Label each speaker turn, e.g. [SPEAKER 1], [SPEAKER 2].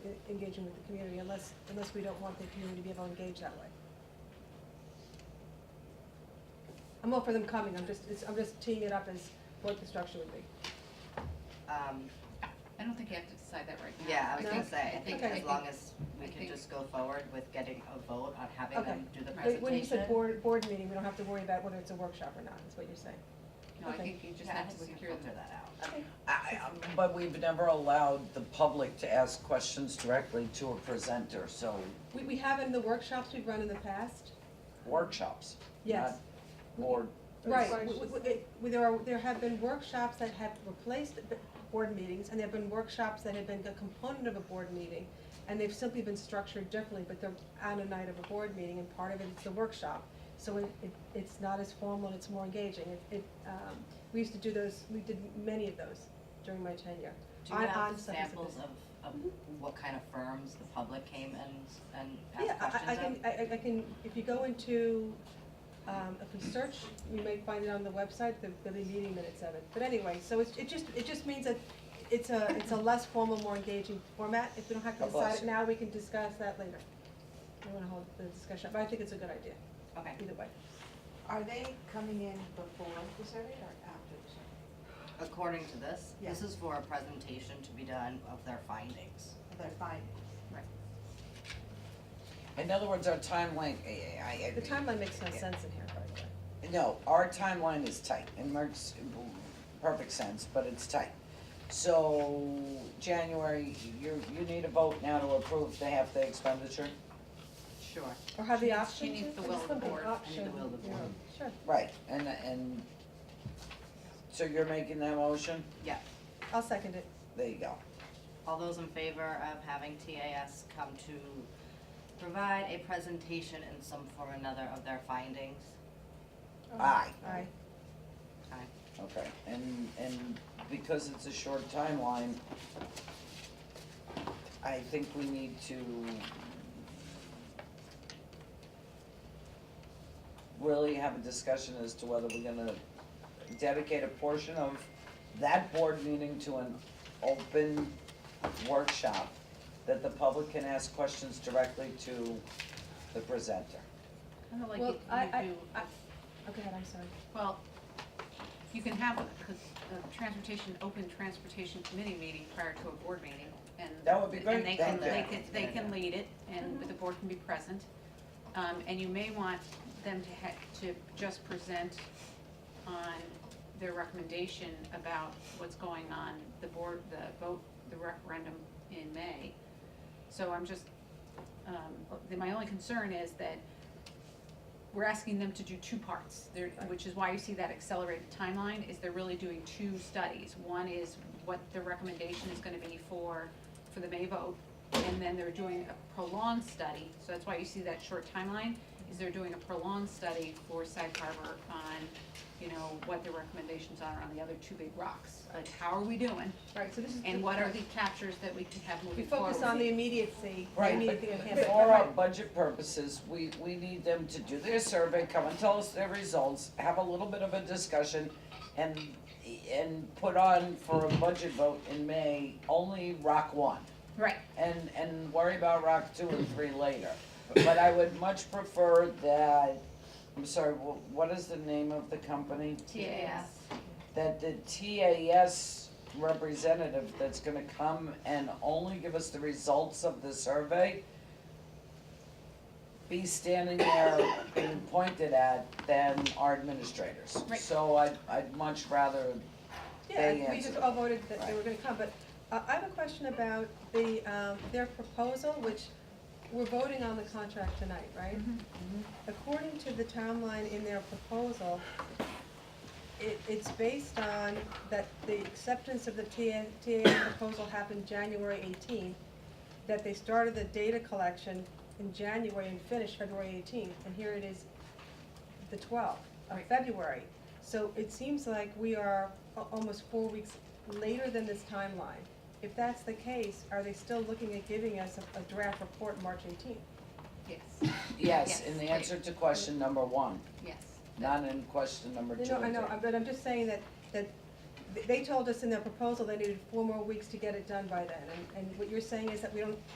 [SPEAKER 1] e-, engaging with the community unless, unless we don't want the community to be able to engage that way. I'm all for them coming, I'm just, it's, I'm just teeing it up as what the structure would be.
[SPEAKER 2] Um,
[SPEAKER 3] I don't think you have to decide that right now.
[SPEAKER 2] yeah, I was gonna
[SPEAKER 3] think-
[SPEAKER 2] say, I think
[SPEAKER 1] Okay.
[SPEAKER 2] as long as we
[SPEAKER 3] I
[SPEAKER 2] can
[SPEAKER 3] think-
[SPEAKER 2] just go forward with getting a vote on having
[SPEAKER 1] Okay.
[SPEAKER 2] them do the
[SPEAKER 1] But
[SPEAKER 2] presentation.
[SPEAKER 1] When you said board, board meeting, we don't have to worry about whether it's a workshop or not, is what you're saying.
[SPEAKER 3] No, I
[SPEAKER 1] okay.
[SPEAKER 3] think you just
[SPEAKER 2] Yeah, I
[SPEAKER 3] have to
[SPEAKER 2] think we can
[SPEAKER 3] secure
[SPEAKER 2] filter
[SPEAKER 3] them.
[SPEAKER 2] that out.
[SPEAKER 1] Okay.
[SPEAKER 4] I, I- but we've never allowed the public to ask questions directly to a presenter, so
[SPEAKER 1] We, we have in the workshops we've run in the past,
[SPEAKER 4] workshops,
[SPEAKER 1] yes.
[SPEAKER 4] not board.
[SPEAKER 1] Right, w- w- w- it- w- there are, there have been workshops that have replaced b- board meetings, and there have been workshops that have been a component of a board meeting, and they've simply been structured differently, but they're on a night of a board meeting, and part of it is the workshop. So it, it, it's not as formal, and it's more engaging, it, it, um, we used to do those, we did many of those during my tenure.
[SPEAKER 2] Do you
[SPEAKER 1] on-
[SPEAKER 2] have
[SPEAKER 1] on stuff as a
[SPEAKER 2] examples
[SPEAKER 1] business.
[SPEAKER 2] of, of what kind of firms the public came and, and
[SPEAKER 1] Yeah,
[SPEAKER 2] asked questions of?
[SPEAKER 1] I, I can, I, I- I can, if you go into, um, if we search, you may find it on the website, the, the meeting minutes of it. But anyway, so it's, it just, it just means that it's a, it's a less formal, more engaging format. If we don't have to
[SPEAKER 4] God bless
[SPEAKER 1] decide it
[SPEAKER 4] you.
[SPEAKER 1] now, we can discuss that later. I don't wanna hold the discussion, up, but I think it's a good idea,
[SPEAKER 2] Okay,
[SPEAKER 1] either way.
[SPEAKER 5] Are they coming in before the survey or after the survey?
[SPEAKER 2] according to this, this
[SPEAKER 5] Yeah.
[SPEAKER 2] is for a presentation to be done of their findings.
[SPEAKER 5] Their findings?
[SPEAKER 2] Right.
[SPEAKER 4] In other words, our timeline, I, I- I-
[SPEAKER 1] The timeline makes no sense in here, by the way.
[SPEAKER 4] No, our timeline is tight, and Mark's, perfect sense, but it's tight. So, January, you, you need a vote now to approve the half the expenditure?
[SPEAKER 2] Sure.
[SPEAKER 1] Or have
[SPEAKER 3] She
[SPEAKER 1] the
[SPEAKER 3] needs-
[SPEAKER 1] option
[SPEAKER 3] she
[SPEAKER 1] to-
[SPEAKER 3] needs the
[SPEAKER 1] I
[SPEAKER 3] will
[SPEAKER 1] just
[SPEAKER 3] of
[SPEAKER 1] want
[SPEAKER 3] the board. I need the
[SPEAKER 1] option,
[SPEAKER 2] will of the
[SPEAKER 1] yeah,
[SPEAKER 2] board.
[SPEAKER 1] Sure,
[SPEAKER 4] Right, and, and, so you're making that motion?
[SPEAKER 2] Yeah,
[SPEAKER 1] I'll second it.
[SPEAKER 4] There you go.
[SPEAKER 2] all those in favor of having TAS come to provide a presentation in some form or another of their findings?
[SPEAKER 4] Aye.
[SPEAKER 1] Aye.
[SPEAKER 2] Okay.
[SPEAKER 4] Okay, and, and because it's a short timeline, I think we need to really have a discussion as to whether we're gonna dedicate a portion of that board meeting to an open workshop that the public can ask questions directly to the presenter.
[SPEAKER 3] Kind of like
[SPEAKER 1] Well,
[SPEAKER 3] you-
[SPEAKER 1] I- I-
[SPEAKER 3] you do,
[SPEAKER 1] I- Oh, go ahead, I'm sorry.
[SPEAKER 3] well, you can have a, a transportation, open transportation committee meeting prior to a board meeting and.
[SPEAKER 4] That would be great,
[SPEAKER 3] And they can,
[SPEAKER 4] thank
[SPEAKER 3] they
[SPEAKER 4] you.
[SPEAKER 3] can, they can lead it and the board can be present. Um, and you may want them to ha- to just present on their recommendation about what's going on, the board, the vote, the referendum in May. So I'm just, um, the- my only concern is that we're asking them to do two parts, there, which is why you see that accelerated timeline, is they're really doing two studies. One is what the recommendation is gonna be for, for the May vote, and then they're doing a prolonged study, so that's why you see that short timeline, is they're doing a prolonged study for Sag Harbor on, you know, what the recommendations are on the other two big rocks. Like, how are we doing,
[SPEAKER 1] Right, so this is.
[SPEAKER 3] and what are the captures that we can have
[SPEAKER 1] We
[SPEAKER 3] moving forward?
[SPEAKER 1] focus on the immediacy, the
[SPEAKER 4] Right,
[SPEAKER 1] immediate thing
[SPEAKER 4] but-
[SPEAKER 1] at hand,
[SPEAKER 4] but
[SPEAKER 1] but-
[SPEAKER 4] for our budget purposes, we, we need them to do their survey, come and tell us their results, have a little bit of a discussion, and, and put on for a budget vote in May, only rock one,
[SPEAKER 3] Right,
[SPEAKER 4] and, and worry about rock two and three later. But I would much prefer that, I'm sorry, wh- what is the name of the company?
[SPEAKER 3] TAS.
[SPEAKER 4] that the TAS representative that's gonna come and only give us the results of the survey be standing there being pointed at than our administrators.
[SPEAKER 3] Right.
[SPEAKER 4] So I'd, I'd much rather,
[SPEAKER 1] Yeah,
[SPEAKER 4] they
[SPEAKER 1] we
[SPEAKER 4] answer
[SPEAKER 1] just
[SPEAKER 4] it.
[SPEAKER 1] all voted that they were gonna come, but uh, I have a question about the, um, their proposal, which we're voting on the contract tonight, right? According to the timeline in their proposal, it, it's based on that the acceptance of the TA, TA proposal happened January eighteenth, that they started the data collection in January and finished February eighteenth, and here it is the twelfth of
[SPEAKER 3] Right.
[SPEAKER 1] February. So it seems like we are a- almost four weeks later than this timeline. If that's the case, are they still looking at giving us a, a draft report March eighteenth?
[SPEAKER 3] yes,
[SPEAKER 4] yes,
[SPEAKER 3] Yes,
[SPEAKER 4] in the
[SPEAKER 3] great.
[SPEAKER 4] answer to question number one,
[SPEAKER 3] yes.
[SPEAKER 4] not in question number two
[SPEAKER 1] No, I
[SPEAKER 4] and
[SPEAKER 1] know,
[SPEAKER 4] three.
[SPEAKER 1] but I'm just saying that, that th- they told us in their proposal they needed four more weeks to get it done by then. And, and what you're saying is that we don't,